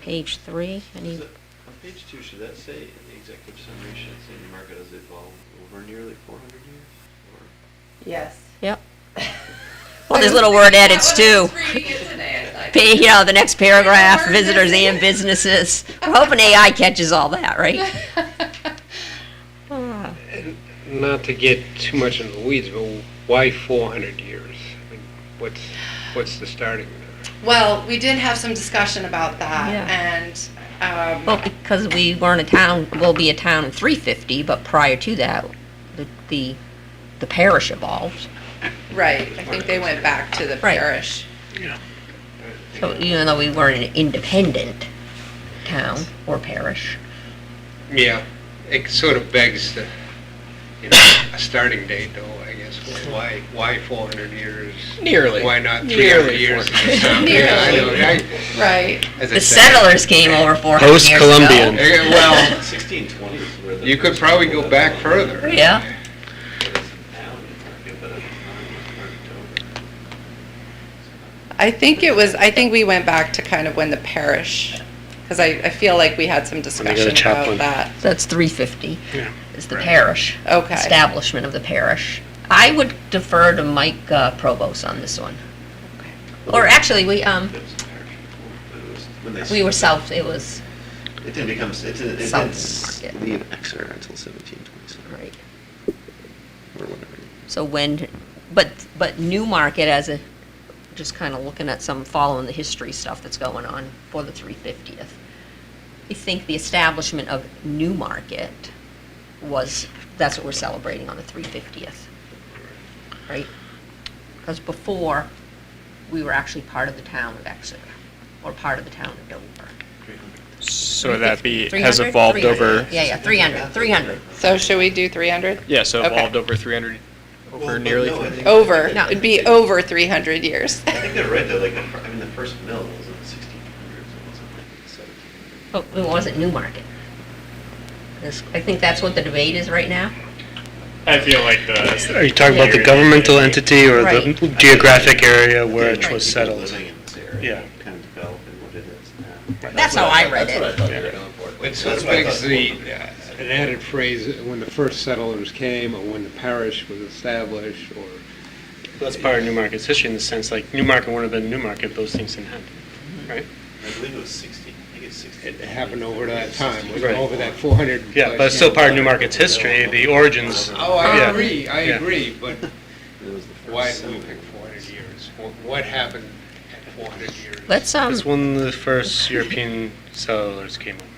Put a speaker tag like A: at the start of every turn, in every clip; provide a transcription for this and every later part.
A: page three, any,
B: Does it- On page two, should that say, in the executive summary, should it say the market has evolved over nearly four hundred years? Or
C: Yes.
A: yep. Well, there's little word edits too. Pa- You know, the next paragraph,
C: Word
A: visitors and businesses. We're hoping AI catches all that, right? Ah,
D: Not to get too much into the weeds, but why 400 years? I mean, What's, what's the starting?
C: Well, we did have some discussion about that,
A: Yeah.
C: and, um,
A: Well, because we weren't a town, we'll be a town in three fifty, but prior to that, the, the, the parish evolved.
C: right, I think they went back to the
A: Right.
C: parish.
A: So even though we weren't an independent town or parish.
D: Yeah, it sort of begs the, you know, a starting date though, I guess. Why, why 400 years?
E: Nearly.
D: Why not 300
E: Nearly
D: years?
E: 400.
D: Yeah, I know, I-
C: Right,
D: as I
A: The
D: said,
A: settlers came over four hundred years ago.
E: Post-Columbian.
D: eh, Well,
B: Sixteen twenty is where the.
D: you could
B: first
D: probably
B: people
D: go
B: that-
D: back further.
A: Yeah.
B: There is a town in Market, but at the time it was Marketober.
C: I think it was, I think we went back to kind of when the parish, because I, I feel like we had some
E: got a
C: discussion about
E: chaplain.
C: that.
A: So That's three fifty.
D: Yeah.
A: Is the
D: Right.
A: parish.
C: Okay.
A: Establishment of the parish. I would defer to Mike uh, Provost on this one. Or actually, we, um,
B: It was a parish before, but it was when they-
A: we were south, it was,
B: It didn't become, it didn't, it
A: South
B: didn't
A: Market.
B: leave Exeter until seventeen twenty-seven,
A: right,
B: or whatever.
A: so when, but, but Newmarket as a, just kind of looking at some, following the history stuff that's going on for the three fiftieth. I think the establishment of Newmarket was, that's what we're celebrating on the three fiftieth. right? Because before, we were actually part of the town of Exeter, or part of the town of Dover.
F: So that be,
A: 300?
F: has evolved
A: 300.
F: over,
A: Yeah, yeah, 300, 300.
C: So should we do three hundred?
F: yeah, so
C: Okay.
F: evolved over 300,
B: Well,
F: over
B: but
F: nearly
B: no, I
F: 300.
B: think-
C: Over,
A: No.
C: it'd be over three hundred years.
B: I think they're right though, like, the fir- I mean, the first mill was in the sixteen hundreds, it wasn't like seventeen hundreds.
A: But it wasn't Newmarket. This- I think that's what the debate is right now.
G: I feel like the.
E: Are you talking about the governmental entity or the
A: Right.
E: geographic area where it
A: Right.
E: was
B: People
E: settled?
B: Living in this area,
E: Yeah.
B: kind of developing what it is now.
A: That's how I read it.
D: It sort of
B: That's what I
D: begs
B: thought.
D: the, uh, an added phrase, when the first settlers came, or when the parish was established, or,
E: That's part of Newmarket's history in the sense, like, Newmarket wouldn't have been Newmarket, those things didn't happen, right?
B: I believe it was sixty, I think it's sixty.
D: it happened over that time, was
E: Right.
D: over that 400.
E: Yeah, but it's still part of Newmarket's history, the origins.
D: Oh, I
E: Yeah.
D: agree, I
E: Yeah.
D: agree, but
B: It was the first
D: why did we
B: settlement.
D: pick 400 years? Wh- What happened at 400 years?
A: Let's, um,
E: It's when the first European settlers came over.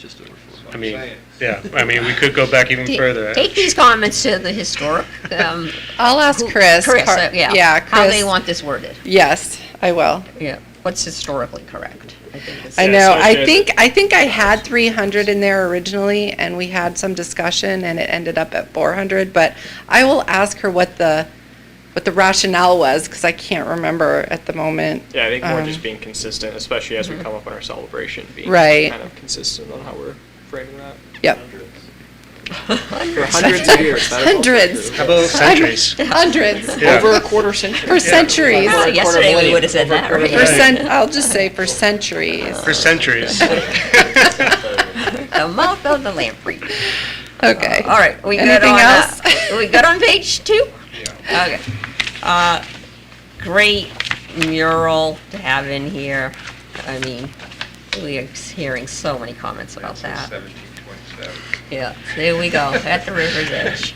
B: Just over four.
E: I mean,
D: Science.
E: yeah, I mean, we could go back even
A: t-
E: further.
A: take these comments to the historic, um...
C: I'll ask
A: who-
C: Chris.
A: Chris,
C: Car-
A: uh, yeah.
C: Yeah,
A: How they
C: Chris.
A: want this worded.
C: Yes, I will.
A: Yeah, what's historically correct. I think is-
C: I
G: Yeah,
C: know.
G: so it
C: I
G: did-
C: think, I think I had three hundred in there originally, and we had some discussion, and it ended up at four hundred, but I will ask her what the, what the rationale was, because I can't remember at the moment.
G: Yeah, I think more
C: Um,
G: just being consistent, especially as we
A: mm-hmm.
G: come up on our celebration, being
C: Right.
G: kind of consistent on how we're framing that.
C: Yep,
G: For hundreds of years. that is also
C: Hundreds.
G: true.
E: How about centuries?
C: hundreds,
E: Yeah.
G: Over a quarter century.
C: for centuries,
A: Well, yesterday we would've said that, right?
C: for cent, I'll just say for centuries.
E: For centuries.
C: Oh.
A: The mouth of the lamprey.
C: Okay.
A: All right, we good
C: Anything
A: on, uh,
C: else?
A: we good on page two? Okay. Uh, Great mural to have in here. I mean, we are hearing so many comments about that.
D: 1727.
A: Yeah, there we go, at the river's edge.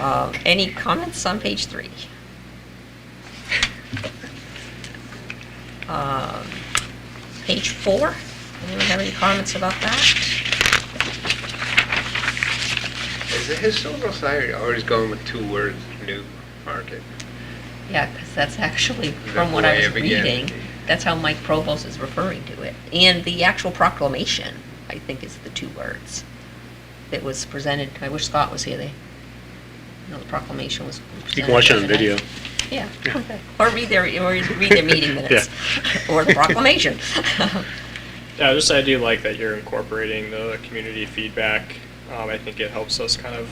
A: Um, Any comments on page three? Um, Page four, anyone have any comments about that?
D: Is the Historical Society always going with two words, new market?
A: Yeah, because that's actually, from
D: That's
A: what I
D: why
A: was
D: it began.
A: reading, that's how Mike Provost is referring to it. And the actual proclamation, I think, is the two words that was presented, I wish Scott was here, they, you know, the proclamation was presented.
E: You can watch it on
A: yesterday.
E: video.
A: Yeah, or read their, or read their meeting minutes, or the proclamation.
G: Yeah, just I do like that you're incorporating the community feedback. Um, I think it helps us kind of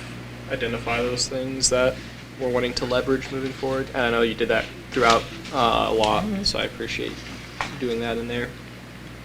G: identify those things that we're wanting to leverage
A: Mm-hmm.
G: moving forward. And I know you did that throughout uh, a lot, so I appreciate doing that in there.